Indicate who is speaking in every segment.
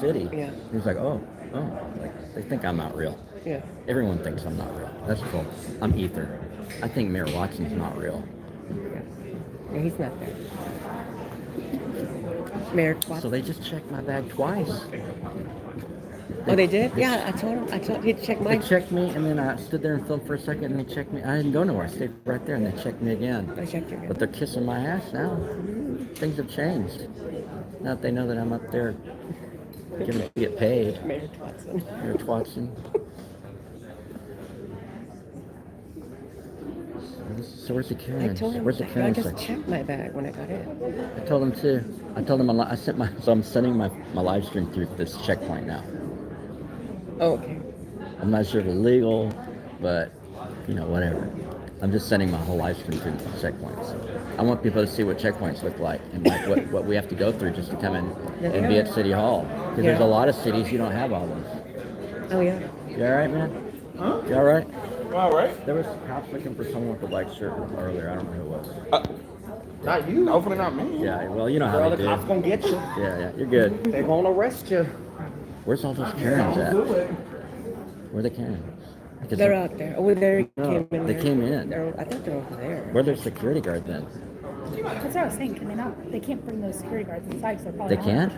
Speaker 1: city.
Speaker 2: Yeah.
Speaker 1: He was like, oh, oh, like they think I'm not real.
Speaker 2: Yeah.
Speaker 1: Everyone thinks I'm not real. That's cool. I'm ether. I think Mayor Watson's not real.
Speaker 2: yeah. No, he's not there. Mayor Watson.
Speaker 1: So they just checked my bag twice.
Speaker 2: oh, they did? Yeah, I told him. I told he checked
Speaker 1: They
Speaker 2: mine.
Speaker 1: checked me, and then I stood there and filmed for a second, and they checked me. I didn't go nowhere. I stayed right there, and they checked me again.
Speaker 2: I checked your
Speaker 1: But they're kissing my ass now. Things have changed. Now that they know that I'm up there gonna get paid.
Speaker 2: Mayor Watson.
Speaker 1: Mayor Watson. So where's the
Speaker 2: I
Speaker 1: Karen?
Speaker 2: told him.
Speaker 1: Where's the
Speaker 2: I
Speaker 1: Karen
Speaker 2: just
Speaker 1: section?
Speaker 2: checked my bag when I got in.
Speaker 1: I told him too. I told him I, li- I sent my so I'm sending my my live stream through this checkpoint now.
Speaker 2: Oh, okay.
Speaker 1: I'm not sure if it's legal, but you know whatever. I'm just sending my whole live stream through checkpoints. I want people to see what checkpoints look like and like what, what we have to go through just to come in and be at City Hall. Because there's a
Speaker 2: Yeah.
Speaker 1: lot of cities you don't have all those.
Speaker 2: Oh yeah.
Speaker 1: You all right, man?
Speaker 3: Huh?
Speaker 1: You all right?
Speaker 3: All right.
Speaker 1: There was cops looking for someone with a black shirt earlier. I don't know who it was.
Speaker 3: Not you. Hopefully not me.
Speaker 1: Yeah, well you know
Speaker 3: Girl,
Speaker 1: how
Speaker 3: the
Speaker 1: they do.
Speaker 3: cops
Speaker 1: Yeah,
Speaker 3: gonna get you.
Speaker 1: yeah, you're good.
Speaker 3: They gonna arrest you.
Speaker 1: Where's all those Karens
Speaker 3: Don't
Speaker 1: at?
Speaker 3: do it.
Speaker 1: Where the Karens? Because
Speaker 2: They're out there. Oh, they
Speaker 1: No,
Speaker 2: came in.
Speaker 1: they
Speaker 2: there.
Speaker 1: came in.
Speaker 2: They're, I think they're over there.
Speaker 1: Where their security guard then?
Speaker 4: That's what I was saying. Can they not? They can't bring those security guards inside. 'cause they're probably
Speaker 1: They can't?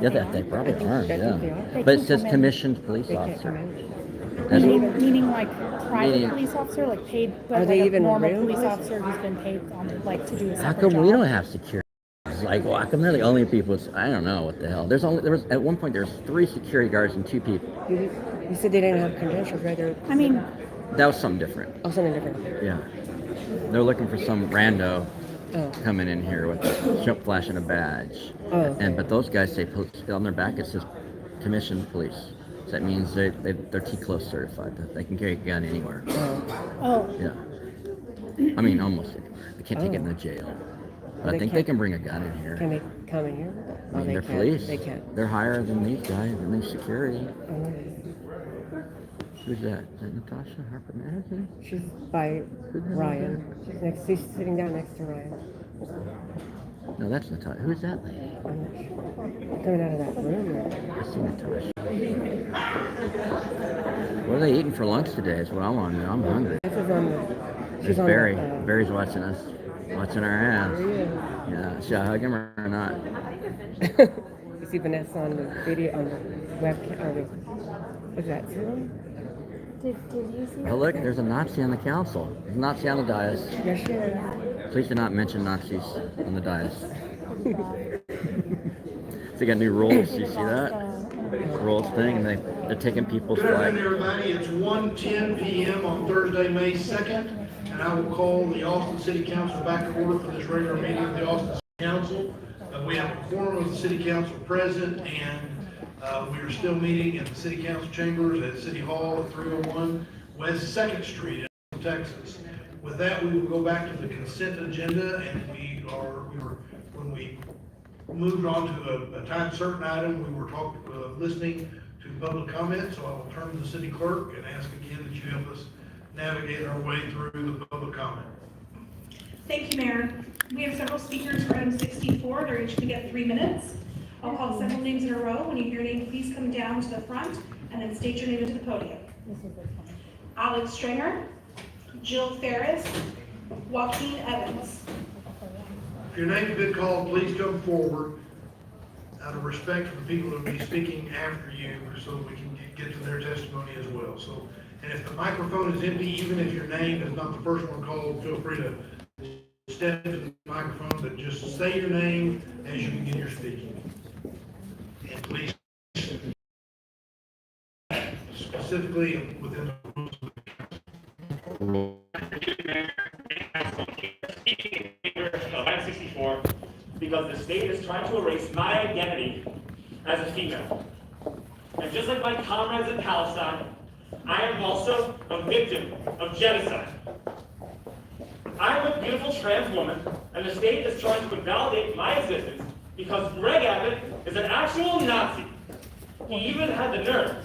Speaker 1: Yeah, they, they probably
Speaker 2: I think-
Speaker 1: aren't,
Speaker 2: I think they
Speaker 1: yeah.
Speaker 2: are.
Speaker 4: They
Speaker 1: But it
Speaker 4: can
Speaker 1: says
Speaker 4: come in.
Speaker 1: commissioned police
Speaker 2: They can't come
Speaker 1: officer.
Speaker 2: in.
Speaker 1: That's-
Speaker 4: Meaning, meaning like private
Speaker 1: Meaning-
Speaker 4: police officer, like paid,
Speaker 2: Are
Speaker 4: but like
Speaker 2: they
Speaker 4: a
Speaker 2: even
Speaker 4: normal
Speaker 2: real
Speaker 4: police
Speaker 2: police?
Speaker 4: officer who's been paid on like to do a
Speaker 1: How
Speaker 4: separate
Speaker 1: come
Speaker 4: job.
Speaker 1: we don't have security? It's Like, well, how come they're the only people, I don't know what the hell. There's only, there was, at one point, there was three security guards and two people.
Speaker 2: You, you said they didn't have credentials, right? They're
Speaker 4: I mean,
Speaker 1: That was something different,
Speaker 2: oh, something different.
Speaker 1: yeah. They're looking for some rando
Speaker 2: Oh,
Speaker 1: coming in here with a jump flash and a badge.
Speaker 2: Oh, okay.
Speaker 1: And, but those guys say, pol- on their back, it says commissioned police. So that means they, they, they're T-close certified, that they can carry a gun anywhere.
Speaker 2: oh,
Speaker 4: oh,
Speaker 1: Yeah. I mean, almost. anywhere. They can't take it in
Speaker 2: Oh.
Speaker 1: the jail. But I
Speaker 2: They
Speaker 1: think they
Speaker 2: can't-
Speaker 1: can bring a gun in here.
Speaker 2: can they come in here?
Speaker 1: I
Speaker 2: Oh,
Speaker 1: mean,
Speaker 2: they
Speaker 1: they're
Speaker 2: can't.
Speaker 1: police.
Speaker 2: They can't.
Speaker 1: They're higher than these guys, and they're security.
Speaker 2: Oh,
Speaker 1: Who's that? Is that Natasha Harper Madison?
Speaker 2: she's by Ryan. She's next. She's sitting down next to Ryan.
Speaker 1: No, that's Natasha. Who's that lady?
Speaker 2: I'm not sure. Coming out of that room.
Speaker 1: I see Natasha. What are they eating for lunch today is what I want to know. I'm hungry.
Speaker 2: This is on the.
Speaker 1: There's
Speaker 2: She's on
Speaker 1: Barry.
Speaker 2: the. uh,
Speaker 1: Barry's watching us. Watching our ass.
Speaker 2: yeah.
Speaker 1: Yeah, should I hug him or or not?
Speaker 2: you see Vanessa on the video on the webcam. Or the, what's that? Zoom?
Speaker 4: did, did you see?
Speaker 1: Oh, look, there's a Nazi on the council. There's a Nazi on the dais.
Speaker 2: Yes, she is.
Speaker 1: Please do not mention Nazis on the dais. they got new rules. You see that?
Speaker 4: uh,
Speaker 1: Rules thing, and they, they're taking people's
Speaker 5: Good
Speaker 1: flag.
Speaker 5: afternoon, everybody. It's 1:10 PM on Thursday, May 2nd, and I will call the Austin City Council back to order for this regular meeting of the Austin City Council. Uh, We have a quorum of the city council present, and uh, we are still meeting at the city council chambers at City Hall at 301 West Second Street in Austin, Texas. With that, we will go back to the consent agenda, and we are, we were, when we moved on to a, a time certain item, we were talking, uh, listening to public comment, so I will turn to the city clerk and ask again that you help us navigate our way through the public comment.
Speaker 6: Thank you, Mayor. We have several speakers for item 64. They're each going to get three minutes. I'll call several names in a row. When you hear your name, please come down to the front and then state your name into the podium. Alex Stringer, Jill Ferris, Joaquin Evans.
Speaker 5: If your name's been called, please come forward out of respect for the people who will be speaking after you, so that we can get- get to their testimony as well. So, and if the microphone is empty, even if your name is not the first one called, feel free to step to the microphone, but just say your name as you begin your speaking. And please specifically within the rules of the
Speaker 7: speaking in favor of Act 64 because the state is trying to erase my identity as a female. And just like my comrades in Palestine, I am also a victim of genocide. I am a beautiful trans woman, and the state is trying to invalidate my existence because Greg Abbott is an actual Nazi. He even had the nerve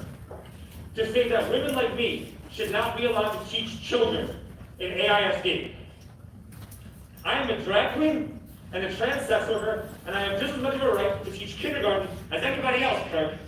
Speaker 7: to say that women like me should not be allowed to teach children in AISD. I am a drag queen, and a trans sex worker, and I have just as much of a right to teach kindergarten as anybody else, Kirk.